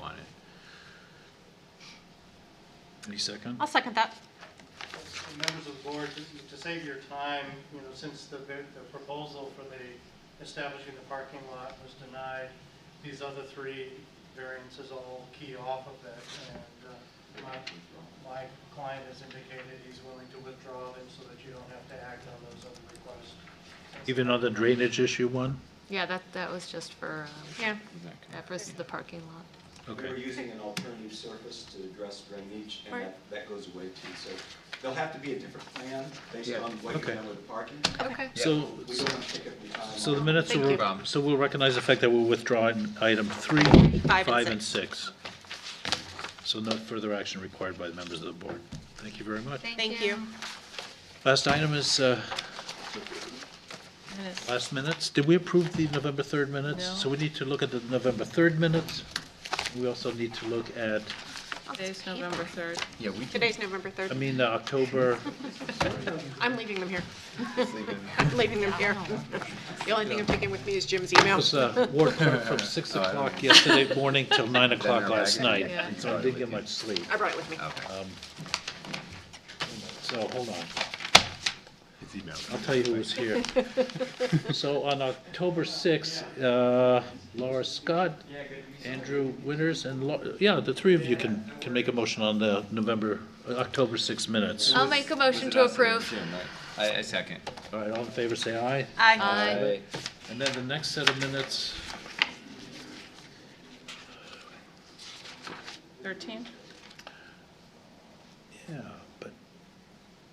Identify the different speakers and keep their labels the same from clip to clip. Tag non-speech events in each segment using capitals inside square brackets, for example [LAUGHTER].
Speaker 1: want it. Any second?
Speaker 2: I'll second that.
Speaker 3: Members of the board, to- to save your time, you know, since the, ve- the proposal for the establishing the parking lot was denied, these other three variances all key off of that, and uh, my, my client has indicated he's willing to withdraw them so that you don't have to act on those other requests.
Speaker 1: Even on the drainage issue one?
Speaker 4: Yeah, that, that was just for, um,
Speaker 2: Yeah.
Speaker 4: that was the parking lot.
Speaker 5: We were
Speaker 1: Okay,
Speaker 5: using an alternative surface to address drainage, and
Speaker 2: Right.
Speaker 5: that, that goes away too. So there'll have to be a different plan based
Speaker 1: Yeah.
Speaker 5: on what you're
Speaker 1: Okay.
Speaker 5: doing with the parking.
Speaker 4: Okay.
Speaker 1: so,
Speaker 5: We don't want to take up the time.
Speaker 1: so the
Speaker 5: on-
Speaker 1: minutes
Speaker 2: Thank
Speaker 1: will,
Speaker 2: you.
Speaker 1: um, so we'll recognize the fact that we're withdrawing item three,
Speaker 2: Five and
Speaker 1: five and
Speaker 2: six.
Speaker 1: six. So no further action required by the members of the board. Thank you very much.
Speaker 2: Thank you.
Speaker 1: Last item is, uh, last minutes. Did we approve the November 3rd minutes?
Speaker 4: No.
Speaker 1: So we need to look at the November 3rd minutes. We also need to look at,
Speaker 6: Today's November 3rd.
Speaker 7: Yeah, we can
Speaker 2: Today's November
Speaker 1: I
Speaker 2: 3rd.
Speaker 1: mean, uh,
Speaker 2: [LAUGHS]
Speaker 1: October,
Speaker 2: I'm leaving them here.
Speaker 7: leave it.
Speaker 2: I'm leaving them
Speaker 4: [LAUGHS]
Speaker 2: here. The only thing I'm taking with me is Jim's email.
Speaker 1: was uh, ward clerk from 6
Speaker 7: [LAUGHS] Oh,
Speaker 1: o'clock yesterday morning till 9 o'clock
Speaker 7: Then we're
Speaker 1: last
Speaker 7: back.
Speaker 1: night.
Speaker 4: Yeah.
Speaker 1: So I didn't get much sleep.
Speaker 2: I brought it with
Speaker 1: [LAUGHS]
Speaker 2: me.
Speaker 1: Um,
Speaker 7: Okay.
Speaker 1: So hold on. I'll tell you who was here. So on October 6th, uh, Laura Scott, Andrew Winters, and, Lau- yeah, the three of you can, can make a motion on the November, uh, October 6 minutes.
Speaker 4: I'll make a motion to approve.
Speaker 7: I, I second.
Speaker 1: All right, all in favor, say aye.
Speaker 2: Aye.
Speaker 4: Aye.
Speaker 1: And then the next set of minutes,
Speaker 6: 13?
Speaker 1: yeah, but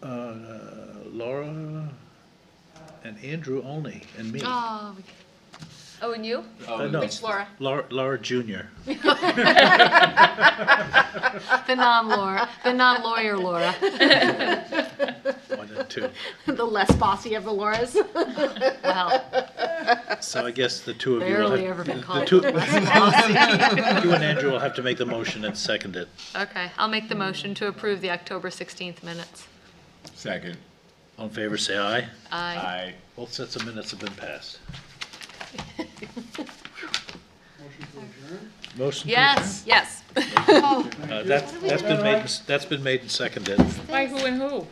Speaker 1: uh, Laura and Andrew only, and me.
Speaker 4: Oh, we- oh, and you?
Speaker 1: Uh, no,
Speaker 2: It's Laura.
Speaker 1: Laura, Laura Junior.
Speaker 4: The non-Laura, the non-lawyer Laura.
Speaker 1: One and two.
Speaker 2: [LAUGHS] The less bossy of the Lauras.
Speaker 4: Wow,
Speaker 1: So I guess the two of you will
Speaker 4: barely ever
Speaker 1: have,
Speaker 4: been
Speaker 1: the
Speaker 4: called.
Speaker 1: two, you and Andrew will have to make the motion and second it.
Speaker 4: Okay, I'll make the motion to approve the October 16th minutes.
Speaker 7: Second.
Speaker 1: All in favor, say aye.
Speaker 4: Aye.
Speaker 7: I.
Speaker 1: Both sets of minutes have been passed. Motion to adjourn?
Speaker 4: Yes,
Speaker 2: Yes.
Speaker 1: Uh, That's, that's been made, and s- that's been made and seconded.
Speaker 6: Why, who and who?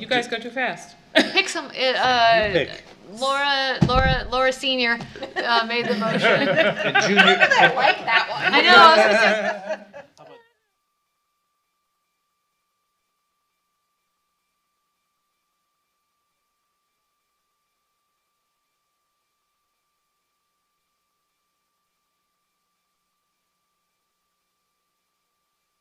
Speaker 6: You guys go too fast.
Speaker 4: pick some, uh, uh,
Speaker 1: Pick.
Speaker 4: Laura, Laura, Laura Senior uh, made the
Speaker 1: [LAUGHS]
Speaker 4: motion.
Speaker 1: And Junior,
Speaker 4: [LAUGHS]
Speaker 2: I like that one.
Speaker 4: I know, I was gonna say,